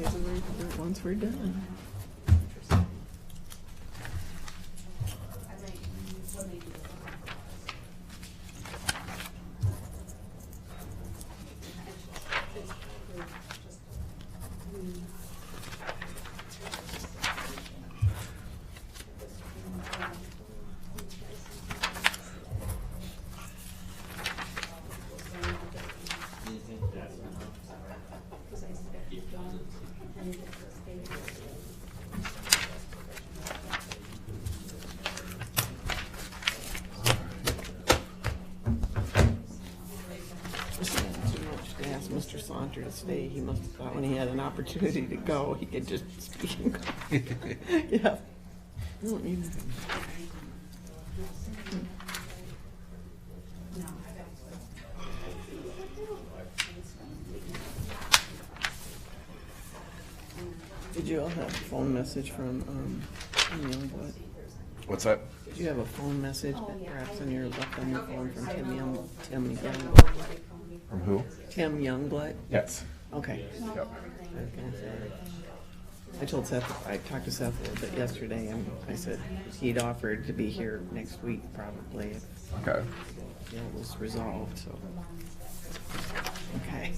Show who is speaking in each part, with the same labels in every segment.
Speaker 1: it once we're done. Just had too much to ask Mr. Saunter to stay. He must have thought when he had an opportunity to go, he could just speak and go. Yeah. I don't need to- Did you all have a phone message from, um, Youngblood?
Speaker 2: What's that?
Speaker 1: Did you have a phone message that perhaps on your left on your phone from Tim Young, Tim Young,
Speaker 2: From who?
Speaker 1: Tim Youngblood?
Speaker 2: Yes.
Speaker 1: Okay.
Speaker 2: Yep.
Speaker 1: I was gonna say, I told Seth, I talked to Seth a little bit yesterday, and I said he'd offered to be here next week probably if
Speaker 2: Okay.
Speaker 1: it was resolved, so. Okay.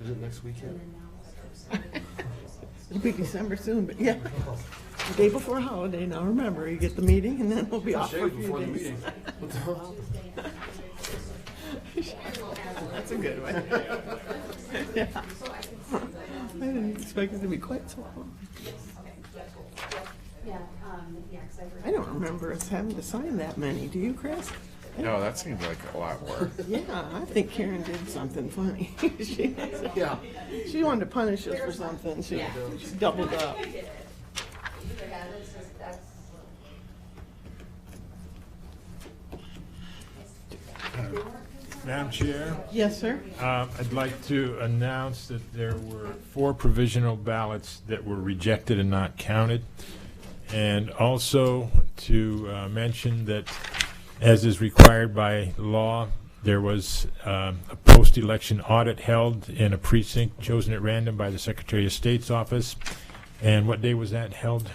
Speaker 3: Is it next weekend?
Speaker 1: It'll be December soon, but yeah. The day before holiday, now remember, you get the meeting and then we'll be off for a
Speaker 3: Shave
Speaker 1: few
Speaker 3: before the
Speaker 1: days.
Speaker 3: meeting. What the hell?
Speaker 1: That's a good one. Yeah. I didn't expect it to be quite so long.
Speaker 4: Yeah, um, yeah, 'cause I've heard.
Speaker 1: I don't remember us having to sign that many, do you, Chris?
Speaker 2: No, that seems like a lot more.
Speaker 1: Yeah, I think Karen did something funny. she,
Speaker 3: Yeah.
Speaker 1: she wanted to punish us for something. She, she doubled up.
Speaker 4: Yeah, that's just, that's.
Speaker 5: Madam Chair,
Speaker 1: Yes, sir.
Speaker 5: uh, I'd like to announce that there were four provisional ballots that were rejected and not counted. And also to uh, mention that, as is required by law, there was um, a post-election audit held in a precinct chosen at random by the Secretary of State's office. And what day was that held?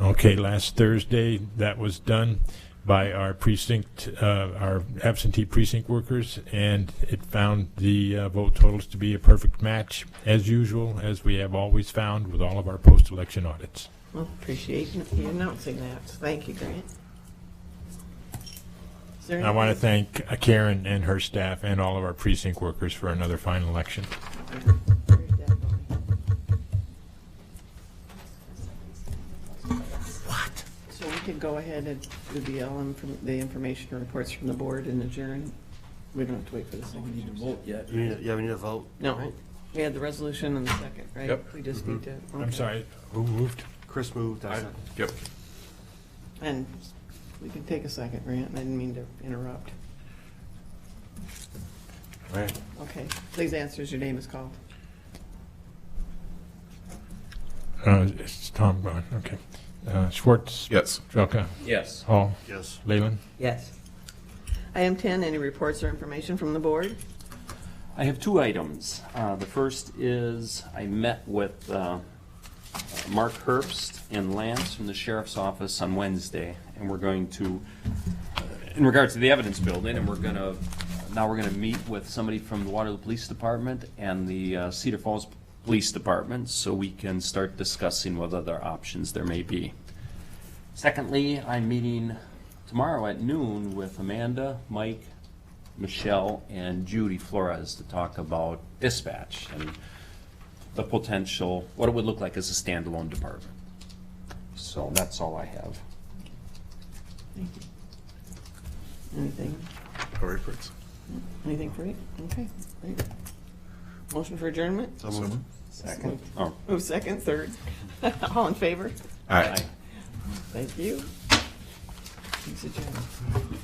Speaker 5: Okay, last Thursday, that was done by our precinct, uh, our absentee precinct workers, and it found the uh, vote totals to be a perfect match, as usual, as we have always found with all of our post-election audits.
Speaker 1: Well, appreciate you announcing that. Thank you, Grant. Is there
Speaker 5: I want to
Speaker 1: anything-
Speaker 5: thank uh, Karen and her staff and all of our precinct workers for another fine election.
Speaker 1: What? So we can go ahead and do the LM, from- the information reports from the board and adjourn? We don't have to wait for the second.
Speaker 3: Vote yet. You need, yeah, we need a vote.
Speaker 1: No,
Speaker 3: right?
Speaker 1: we had the resolution and the second, right?
Speaker 2: Yep.
Speaker 1: We just need to.
Speaker 5: I'm
Speaker 1: okay.
Speaker 5: sorry, who moved?
Speaker 3: Chris moved, I
Speaker 2: I-
Speaker 3: second.
Speaker 2: Yep.
Speaker 1: And we can take a second, Grant, I didn't mean to interrupt.
Speaker 2: Right.
Speaker 1: Okay, please answer as your name is called.
Speaker 5: Uh, It's Tom Bond, okay. Uh, Schwartz?
Speaker 2: Yes.
Speaker 5: Jelka?
Speaker 6: Yes.
Speaker 5: Hall?
Speaker 3: Yes.
Speaker 5: Leyland?
Speaker 1: Yes. Item 10, any reports or information from the board?
Speaker 6: I have two items. Uh, The first is I met with uh, Mark Herbst and Lance from the sheriff's office on Wednesday, and we're going to, uh, in regards to the evidence building, and we're gonna, now we're gonna meet with somebody from the Waterloo Police Department and the uh, Cedar Falls Police Department, so we can start discussing what other options there may be. Secondly, I'm meeting tomorrow at noon with Amanda, Mike, Michelle, and Judy Flores to talk about dispatch and the potential, what it would look like as a standalone department. So that's all I have.
Speaker 1: Thank you. Anything?
Speaker 2: No reports.
Speaker 1: Anything for you? Okay. great. Motion for adjournment?
Speaker 3: So
Speaker 2: Mm-hmm.
Speaker 3: moved.
Speaker 6: Second. Oh,
Speaker 1: Move second, third. All in favor?
Speaker 2: All right.
Speaker 6: aye.
Speaker 1: Thank you. Thanks, adjourned.